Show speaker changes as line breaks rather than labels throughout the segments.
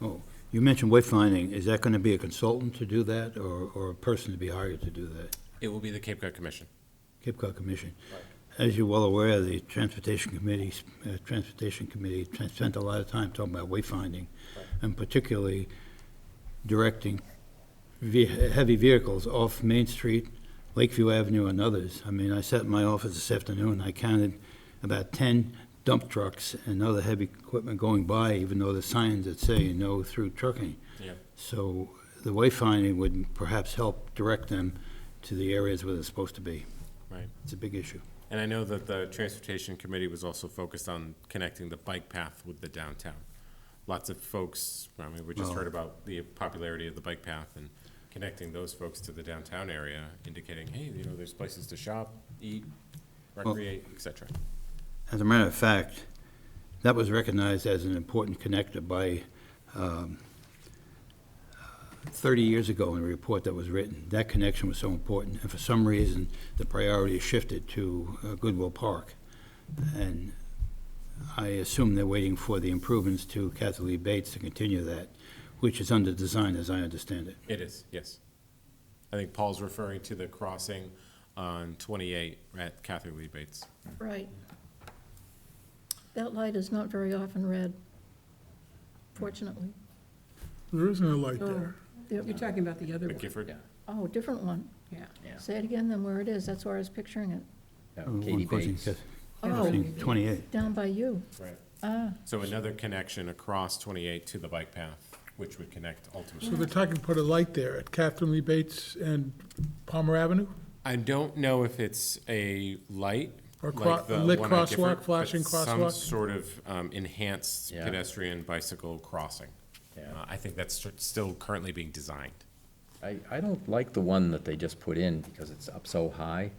Oh, you mentioned wayfinding. Is that going to be a consultant to do that or, or a person to be hired to do that?
It will be the Cape Cod Commission.
Cape Cod Commission. As you're well aware, the Transportation Committee, uh, Transportation Committee tran- spent a lot of time talking about wayfinding, and particularly directing ve- heavy vehicles off Main Street, Lakeview Avenue, and others. I mean, I sat in my office this afternoon, I counted about 10 dump trucks and other heavy equipment going by, even though the signs that say no through trucking.
Yeah.
So the wayfinding would perhaps help direct them to the areas where they're supposed to be.
Right.
It's a big issue.
And I know that the Transportation Committee was also focused on connecting the bike path with the downtown. Lots of folks, I mean, we just heard about the popularity of the bike path and connecting those folks to the downtown area, indicating, hey, you know, there's places to shop, eat, recreate, et cetera.
As a matter of fact, that was recognized as an important connector by, um, 30 years ago in a report that was written. That connection was so important, and for some reason, the priority shifted to uh, Goodwill Park. And I assume they're waiting for the improvements to Kathy Lee Bates to continue that, which is under design, as I understand it.
It is, yes. I think Paul's referring to the crossing on 28 at Catherine Lee Bates.
Right. That light is not very often red, fortunately.
There is no light
Oh,
there.
there-
You're talking about the other
The
one?
Gifford?
Oh, different one.
Yeah.
Say it again, then where it is, that's where I was picturing it.
Uh,
No, Katie
one question,
Bates.
Kath-
Oh,
Kathleen, 28.
down by you.
Right.
Ah,
So another connection across 28 to the bike path, which would connect
So
ultimately.
they're talking to put a light there at Catherine Lee Bates and Palmer Avenue?
I don't know if it's a light.
Or
like
cro-
the
lit
one on
crosswalk,
Gifford, but
flashing
Some
crosswalk?
sort of um, enhanced
Yeah.
pedestrian bicycle crossing.
Yeah.
Uh, I think that's st- still currently being designed.
I, I don't like the one that they just put in because it's up so high.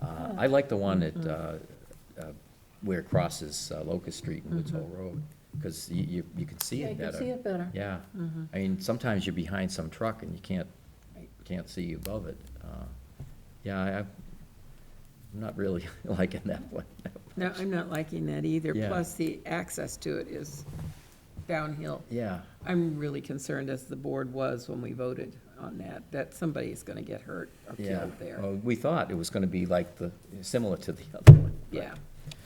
Uh, I like the one at, uh,
Mm-hmm.
uh, where it crosses uh, Locust Street and Woods Hole Road, because you, you, you can see
Mm-hmm. yeah, you can
it
see
better.
it better. Mm-hmm.
Yeah, I mean, sometimes you're behind some truck and you can't, can't see above it. Uh, Yeah, I, I'm not really liking that one.
No, I'm not liking that either.
Yeah.
Plus, the access to it is downhill.
Yeah,
I'm really concerned, as the board was when we voted on that, that somebody is going to get hurt or
yeah.
killed
Oh,
there.
Well, We thought it was gonna be like the, similar to the other one. but-
Yeah,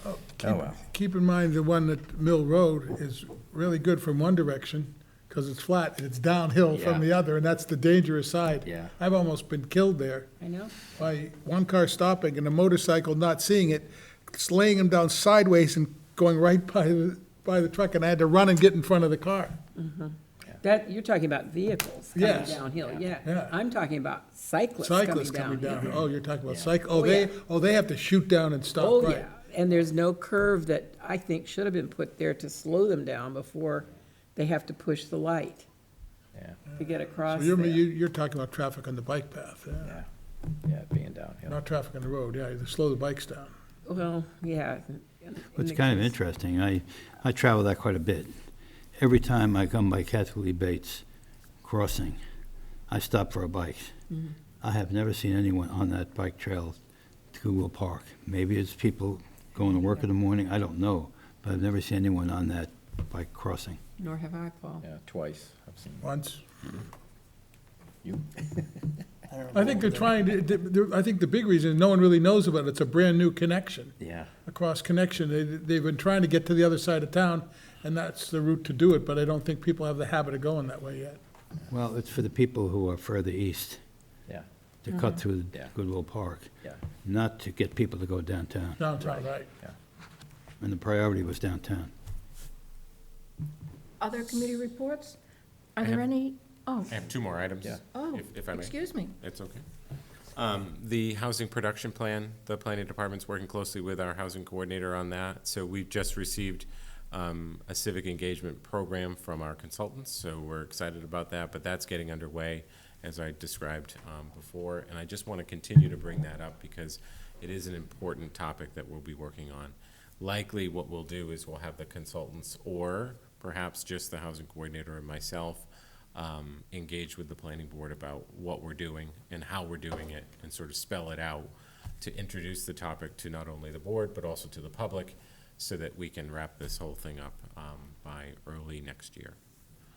Oh, well.
Keep in mind, the one at Mill Road is really good from one direction, because it's flat, and it's downhill from
Yeah.
the other, and that's the dangerous side.
Yeah.
I've almost been killed there
I know.
by one car stopping and a motorcycle not seeing it, slaying him down sideways and going right by, the by the truck, and I had to run and get in front of the car.
That, you're talking about vehicles coming
Yes.
downhill, yeah.
Yeah.
I'm talking about cyclists coming
Cyclists coming down,
downhill.
oh, you're talking about cycle, oh,
Oh, yeah.
they, oh, they have to shoot down and
Oh,
stop, right.
yeah, and there's no curve that I think should have been put there to slow them down before they have to push the light
Yeah,
to get across
So you're,
there.
you- you're talking about traffic on the bike path, yeah,
yeah, yeah, being downhill.
not traffic on the road, yeah, you slow the bikes down.
Well, yeah.
It's kind of interesting. I, I travel that quite a bit. Every time I come by Kathy Lee Bates Crossing, I stop for a bike. I have never seen anyone on that bike trail to Goodwill Park. Maybe it's people going to work in the morning, I don't know, but I've never seen anyone on that bike crossing.
Nor have I, Paul.
Yeah, twice, I've seen
Once.
you.
I think they're trying to, they- they're- I think the big reason, is no one really knows about it, it's a brand-new connection,
Yeah.
a cross-connection. They, they've been trying to get to the other side of town, and that's the route to do it, but I don't think people have the habit of going that way yet.
Well, it's for the people who are further east
Yeah,
to cut through
Yeah.
Goodwill Park,
yeah,
not to get people to go downtown.
Downtown, right.
And the priority was downtown.
Other committee reports? Are
I
there
have-
any? Oh,
I have two more items.
Yeah.
oh,
if- if I may.
excuse me.
It's okay. Um, The housing production plan, the planning department's working closely with our housing coordinator on that. So we've just received um, a civic engagement program from our consultants, so we're excited about that. But that's getting underway, as I described um, before. And I just want to continue to bring that up because it is an important topic that we'll be working on. Likely, what we'll do is we'll have the consultants or perhaps just the housing coordinator and myself um, engage with the planning board about what we're doing and how we're doing it and sort of spell it out to introduce the topic to not only the board, but also to the public so that we can wrap this whole thing up um, by early next year.